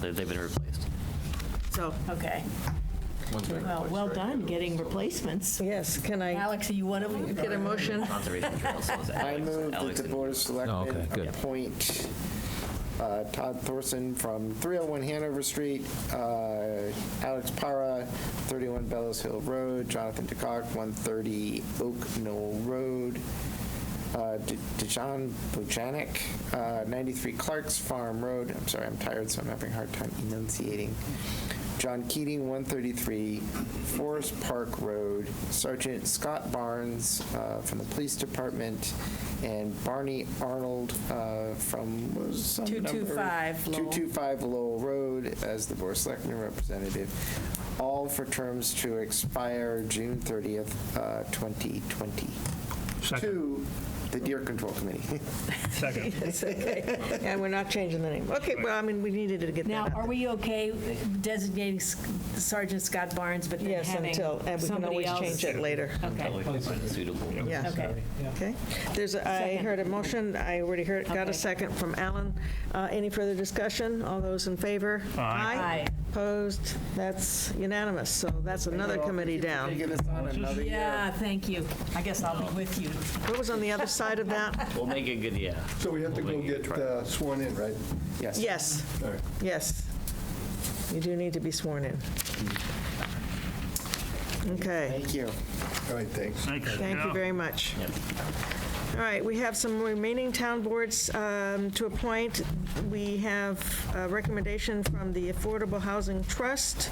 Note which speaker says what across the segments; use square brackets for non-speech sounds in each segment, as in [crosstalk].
Speaker 1: They- They've been replaced.
Speaker 2: So,
Speaker 3: Okay. Well, well done getting replacements.
Speaker 2: yes, can I
Speaker 3: Alex, are you one of them?
Speaker 2: get a motion?
Speaker 1: Conservation Trails was
Speaker 4: I
Speaker 1: Alex-
Speaker 4: move that
Speaker 1: Alex
Speaker 4: the
Speaker 1: and-
Speaker 4: Board of Selectmen
Speaker 5: Oh, okay, good.
Speaker 4: appoint uh, Todd Thorson from 301 Hanover Street, uh, Alex Para, 31 Bellows Hill Road, Jonathan DeCock, 130 Oak Knoll Road, uh, D- Dejan Bojanic, uh, 93 Clark's Farm Road, I'm sorry, I'm tired, so I'm having a hard time enunciating, John Keating, 133 Forest Park Road, Sergeant Scott Barnes uh, from the Police Department, and Barney Arnold uh, from, what was some number?
Speaker 3: 225 Lowell.
Speaker 4: 225 Lowell Road as the Board of Selectmen representative, all for terms to expire June 30th, uh, 2020. To the Deer Control Committee.
Speaker 6: Second.
Speaker 2: And we're not changing the name. Okay, well, I mean, we needed to get that
Speaker 3: Now,
Speaker 2: out
Speaker 3: are
Speaker 2: there.
Speaker 3: we okay designating S- Sergeant Scott Barnes, but then
Speaker 2: Yes,
Speaker 3: having
Speaker 2: until, and we can
Speaker 3: somebody
Speaker 2: always
Speaker 3: else-
Speaker 2: change it later.
Speaker 3: Okay,
Speaker 1: Probably can find a suitable.
Speaker 2: Yeah.
Speaker 3: okay.
Speaker 2: Okay. There's, a- I
Speaker 3: Second.
Speaker 2: heard a motion, I already heard, got
Speaker 3: Okay.
Speaker 2: a second from Alan. Uh, Any further discussion? All those in favor?
Speaker 3: Aye.
Speaker 2: Opposed? That's unanimous, so that's another committee down.
Speaker 4: [laughs] Taking us on another year.
Speaker 3: Yeah, thank you. I guess I'll be with you.
Speaker 2: What was on the other side of
Speaker 3: [laughs]
Speaker 2: that?
Speaker 1: We'll make it good, yeah.
Speaker 7: So we have to go
Speaker 1: We'll make it
Speaker 7: get
Speaker 1: right.
Speaker 7: uh, sworn in, right?
Speaker 4: Yes.
Speaker 2: Yes,
Speaker 7: All right.
Speaker 2: yes. You do need to be sworn in. Okay,
Speaker 4: Thank you.
Speaker 7: All right, thanks.
Speaker 2: thank you very much. All right, we have some remaining town boards um, to appoint. We have a recommendation from the Affordable Housing Trust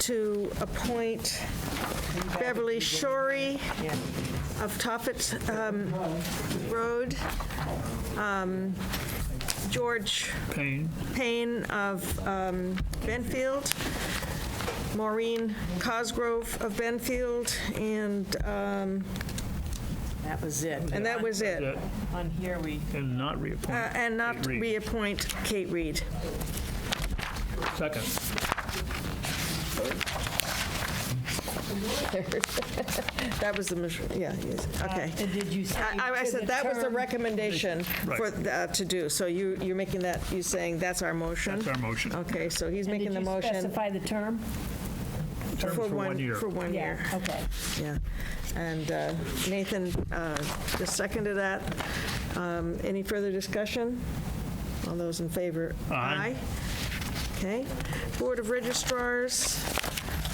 Speaker 2: to appoint Beverly Shorey of Tophet um, Road, um, George
Speaker 6: Payne.
Speaker 2: Payne of um, Benfield, Maureen Cosgrove of Benfield, and, um,
Speaker 3: That was it.
Speaker 2: and that was it.
Speaker 6: That-
Speaker 3: On here, we,
Speaker 6: And not
Speaker 2: Uh,
Speaker 6: reappoint.
Speaker 2: And not
Speaker 6: Kate Reed.
Speaker 2: reappoint Kate Reed.
Speaker 6: Second.
Speaker 2: That was the, mis- yeah, yes, okay.
Speaker 3: and Uh, did you say?
Speaker 2: I I- I
Speaker 3: to
Speaker 2: said that was the
Speaker 3: term-
Speaker 2: recommendation for,
Speaker 6: Right.
Speaker 2: uh, to do, so you, you're making that, you're saying that's our motion?
Speaker 6: That's our motion.
Speaker 2: Okay, so he's making the
Speaker 3: And did you
Speaker 2: motion
Speaker 3: specify the term?
Speaker 6: Term for one year.
Speaker 2: For one year,
Speaker 3: Yeah, okay.
Speaker 2: yeah. And uh, Nathan uh, just seconded that. Um, Any further discussion? All those in favor?
Speaker 6: Aye.
Speaker 2: Okay. Board of Registrars,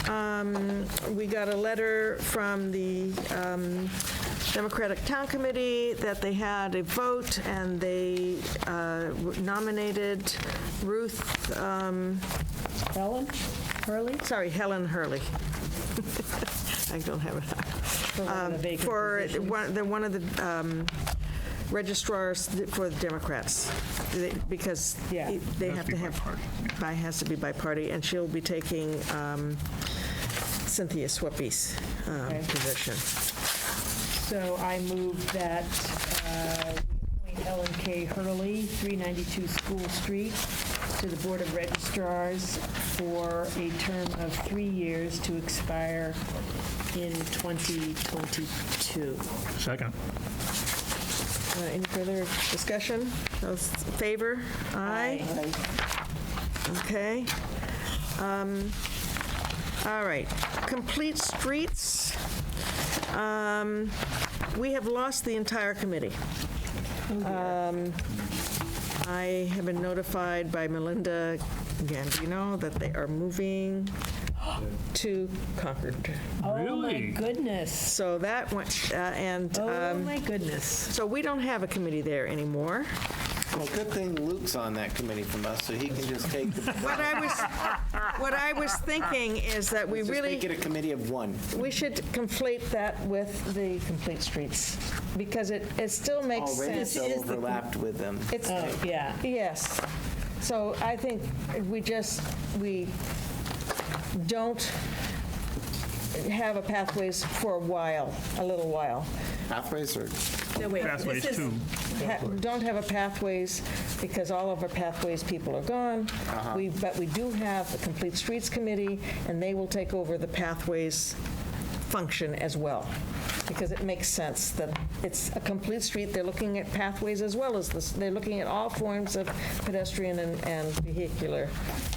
Speaker 2: um, we got a letter from the um, Democratic Town Committee that they had a vote, and they uh, nominated Ruth, um,
Speaker 3: Ellen, Hurley?
Speaker 2: sorry, Helen Hurley. [laughs] I don't have it.
Speaker 3: For one of the vacant
Speaker 2: Um, For
Speaker 3: positions.
Speaker 2: one, the, one of the um, registrars th- for the Democrats, they- because
Speaker 3: Yeah.
Speaker 2: it- they
Speaker 6: Has
Speaker 2: have
Speaker 6: to
Speaker 2: to
Speaker 6: be by
Speaker 2: have.
Speaker 6: party,
Speaker 2: by- Has to be by party, and she'll be taking um, Cynthia Sweppe's um,
Speaker 3: Okay.
Speaker 2: position.
Speaker 3: So I move that uh, we appoint Ellen K. Hurley, 392 School Street, to the Board of Registrars for a term of three years to expire in 2022.
Speaker 6: Second.
Speaker 2: Uh, Any further discussion? Those in favor? Aye. Okay. Um, All right. Complete Streets. Um, We have lost the entire committee. Um, I have been notified by Melinda Gambino that they are
Speaker 4: [gasps]
Speaker 2: moving to Concord.
Speaker 3: Oh, my
Speaker 6: Really?
Speaker 3: goodness.
Speaker 2: So that went, uh, and,
Speaker 3: Oh,
Speaker 2: um,
Speaker 3: my goodness.
Speaker 2: so we don't have a committee there anymore.
Speaker 4: Well, good thing Luke's on that committee from us, so he can just take,
Speaker 2: [laughs]
Speaker 4: the-
Speaker 2: What I was, what I was thinking is that we
Speaker 4: just
Speaker 2: really,
Speaker 4: make it a committee of one.
Speaker 2: we should conflate that with the complete streets, because it, it still makes
Speaker 4: Already
Speaker 2: sense.
Speaker 4: so overlapped with them.
Speaker 2: It's,
Speaker 3: Oh, yeah.
Speaker 2: yes. So I think we just, we don't have a pathways for a while, a little while.
Speaker 4: Pathways are,
Speaker 3: No, wait.
Speaker 6: Pathways
Speaker 3: This is-
Speaker 6: two.
Speaker 2: ha- don't have a pathways, because all of our pathways people are gone. We, but we do have the Complete Streets Committee, and they will take over the pathways function as well, because it makes sense that it's a complete street, they're looking at pathways as well as this, they're looking at all forms of pedestrian and, and vehicular